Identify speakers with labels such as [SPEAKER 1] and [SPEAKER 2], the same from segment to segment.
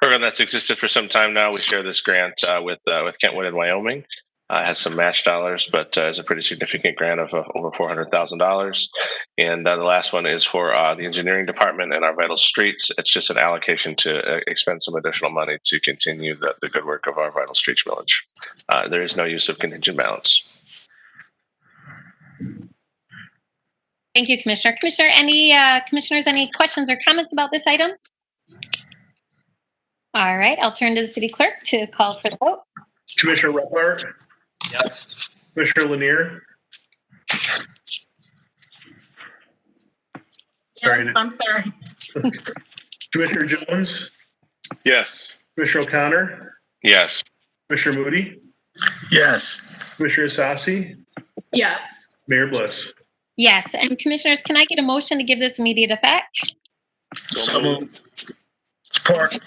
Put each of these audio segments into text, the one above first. [SPEAKER 1] program that's existed for some time now. We share this grant uh, with uh, with Kentwood in Wyoming. Uh, it has some match dollars, but uh, is a pretty significant grant of uh, over four hundred thousand dollars. And uh, the last one is for uh, the engineering department and our vital streets. It's just an allocation to uh, expend some additional money to continue the, the good work of our vital streets village. Uh, there is no use of contingent balance.
[SPEAKER 2] Thank you, Commissioner. Commissioner, any uh, commissioners, any questions or comments about this item? All right, I'll turn to the city clerk to call for the vote.
[SPEAKER 3] Commissioner Repler,
[SPEAKER 4] Yes.
[SPEAKER 3] Commissioner Lanier, Sorry,
[SPEAKER 5] Yes,
[SPEAKER 3] Nick.
[SPEAKER 5] I'm sorry.
[SPEAKER 3] Commissioner Jones,
[SPEAKER 1] Yes.
[SPEAKER 3] Commissioner O'Connor,
[SPEAKER 1] Yes.
[SPEAKER 3] Commissioner Moody,
[SPEAKER 6] Yes.
[SPEAKER 3] Commissioner Sassi,
[SPEAKER 5] Yes,
[SPEAKER 3] Mayor Bliss.
[SPEAKER 2] Yes, and commissioners, can I get a motion to give this immediate effect?
[SPEAKER 6] So moved. Support.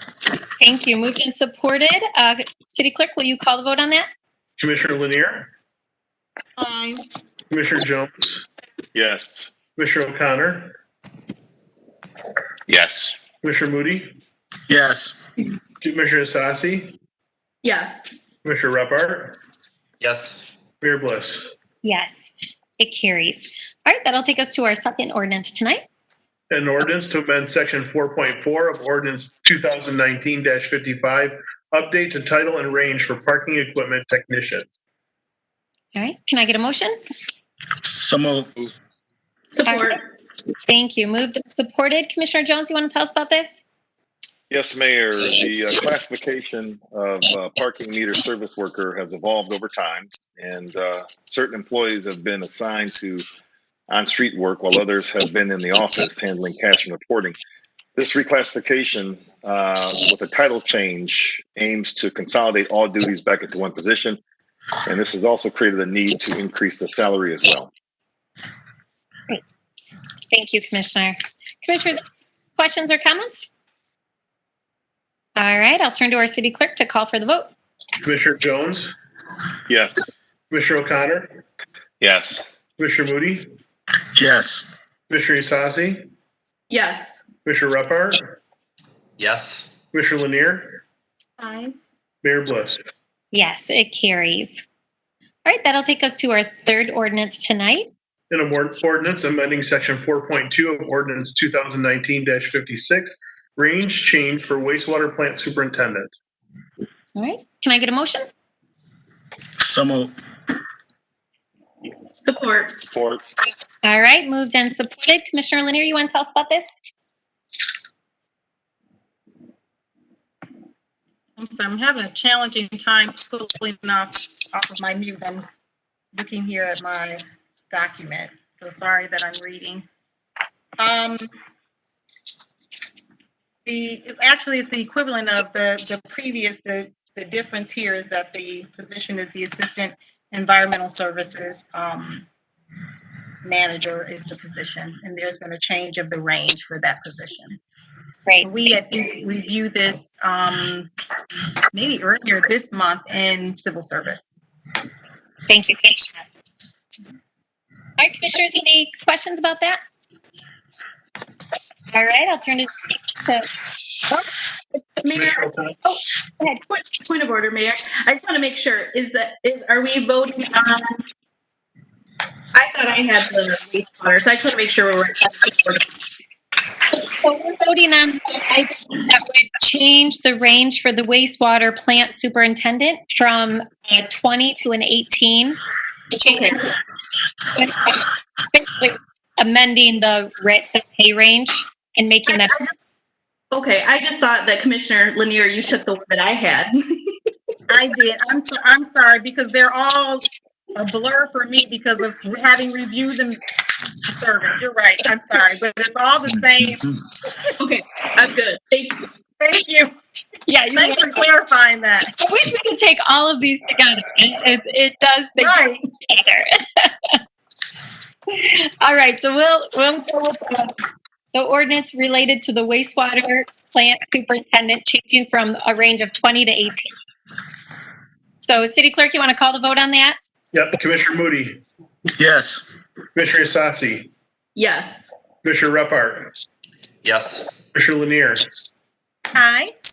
[SPEAKER 2] Thank you. Moved and supported. Uh, City Clerk, will you call the vote on that?
[SPEAKER 3] Commissioner Lanier,
[SPEAKER 5] aye.
[SPEAKER 3] Commissioner Jones,
[SPEAKER 1] Yes.
[SPEAKER 3] Commissioner O'Connor,
[SPEAKER 1] Yes.
[SPEAKER 3] Commissioner Moody,
[SPEAKER 6] Yes.
[SPEAKER 3] Commissioner Sassi,
[SPEAKER 5] Yes,
[SPEAKER 3] Commissioner Repler,
[SPEAKER 4] Yes.
[SPEAKER 3] Mayor Bliss.
[SPEAKER 2] Yes, it carries. All right, that'll take us to our second ordinance tonight.
[SPEAKER 3] An ordinance to amend section four point four of ordinance two thousand nineteen fifty-five, update to title and range for parking equipment technician.
[SPEAKER 2] All right, can I get a motion?
[SPEAKER 6] So moved.
[SPEAKER 5] support.
[SPEAKER 2] Thank you. Moved and supported. Commissioner Jones, you want to tell us about this?
[SPEAKER 7] Yes, Mayor, the uh, classification of uh, parking meter service worker has evolved over time, and uh, certain employees have been assigned to on-street work while others have been in the office handling cash and reporting. This reclassification uh, with a title change aims to consolidate all duties back into one position, and this has also created a need to increase the salary as well.
[SPEAKER 2] Thank you, Commissioner. Commissioners, questions or comments? All right, I'll turn to our city clerk to call for the vote.
[SPEAKER 3] Commissioner Jones,
[SPEAKER 7] Yes.
[SPEAKER 3] Commissioner O'Connor,
[SPEAKER 1] Yes.
[SPEAKER 3] Commissioner Moody,
[SPEAKER 6] Yes.
[SPEAKER 3] Commissioner Sassi,
[SPEAKER 5] Yes,
[SPEAKER 3] Commissioner Repart,
[SPEAKER 4] Yes.
[SPEAKER 3] Commissioner Lanier,
[SPEAKER 5] aye.
[SPEAKER 3] Mayor Bliss.
[SPEAKER 2] Yes, it carries. All right, that'll take us to our third ordinance tonight.
[SPEAKER 3] In a word ordinance amending section four point two of ordinance two thousand nineteen fifty-six, range change for wastewater plant superintendent.
[SPEAKER 2] All right, can I get a motion?
[SPEAKER 6] So moved.
[SPEAKER 5] Support.
[SPEAKER 7] Support.
[SPEAKER 2] All right, moved and supported. Commissioner Lanier, you want to tell us about this?
[SPEAKER 5] I'm sorry, I'm having a challenging time pulling off, off of my mute. I'm looking here at my document, so sorry that I'm reading. Um, the, actually, it's the equivalent of the, the previous, the, the difference here is that the position is the Assistant Environmental Services, um, Manager is the position, and there's been a change of the range for that position.
[SPEAKER 2] Great.
[SPEAKER 5] We had reviewed this um, maybe earlier this month in civil service.
[SPEAKER 2] Thank you, Commissioner. All right, Commissioners, any questions about that? All right, I'll turn to, to
[SPEAKER 8] Mayor,
[SPEAKER 3] Commissioner O'Connor,
[SPEAKER 8] Oh, point, point of order, Mayor. I just want to make sure, is that, is, are we voting on? I thought I had the wastewater, so I just want to make sure we're.
[SPEAKER 2] So we're voting on the item that would change the range for the wastewater plant superintendent from a 20 to an 18.
[SPEAKER 8] Okay.
[SPEAKER 2] Amending the rate, the pay range and making that,
[SPEAKER 8] Okay, I just thought that Commissioner Lanier, you took the one that I had.
[SPEAKER 5] I did. I'm so, I'm sorry because they're all a blur for me because of having reviewed them. Service. You're right. I'm sorry, but it's all the same.
[SPEAKER 8] Okay, I'm good. Thank you.
[SPEAKER 5] Thank you.
[SPEAKER 2] yeah, you
[SPEAKER 5] Thanks for clarifying that.
[SPEAKER 2] I wish we could take all of these together. It, it does, they go
[SPEAKER 5] Right.
[SPEAKER 2] together. All right, so we'll, we'll go with the- the ordinance related to the wastewater plant superintendent changing from a range of 20 to 18. So city clerk, you want to call the vote on that?
[SPEAKER 3] Yep, Commissioner Moody,
[SPEAKER 6] Yes.
[SPEAKER 3] Commissioner Sassi,
[SPEAKER 8] Yes.
[SPEAKER 3] Commissioner Repart,
[SPEAKER 4] Yes.
[SPEAKER 3] Commissioner Lanier,
[SPEAKER 5] Hi.